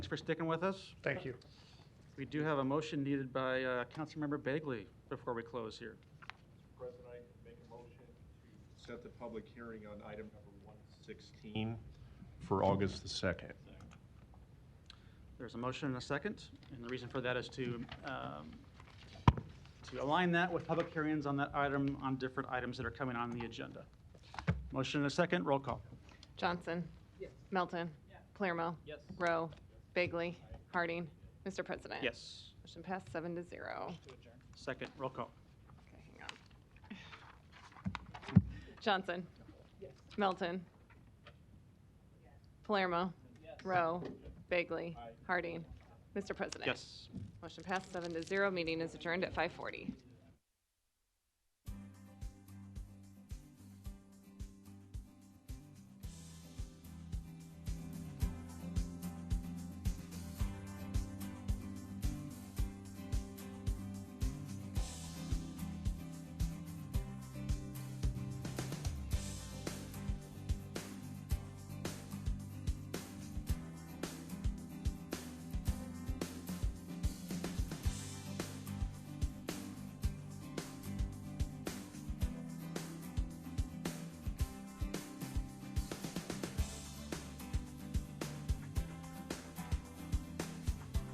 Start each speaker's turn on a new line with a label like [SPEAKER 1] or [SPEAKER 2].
[SPEAKER 1] Thanks for sticking with us.
[SPEAKER 2] Thank you.
[SPEAKER 1] We do have a motion needed by uh, Councilmember Bagley before we close here.
[SPEAKER 3] President, I make a motion to set the public hearing on item number 116 for August the 2nd.
[SPEAKER 1] There's a motion and a second, and the reason for that is to, um, to align that with public hearings on that item, on different items that are coming on the agenda. Motion and a second, roll call.
[SPEAKER 4] Johnson. Melton. Palermo. Rowe. Bagley. Harding. Mr. President.
[SPEAKER 1] Yes.
[SPEAKER 4] Motion passed seven to zero.
[SPEAKER 1] Second, roll call.
[SPEAKER 4] Okay, hang on. Johnson. Melton. Palermo. Rowe. Bagley. Harding. Mr. President.
[SPEAKER 1] Yes.
[SPEAKER 4] Motion passed seven to zero. Meeting is adjourned at 5:40.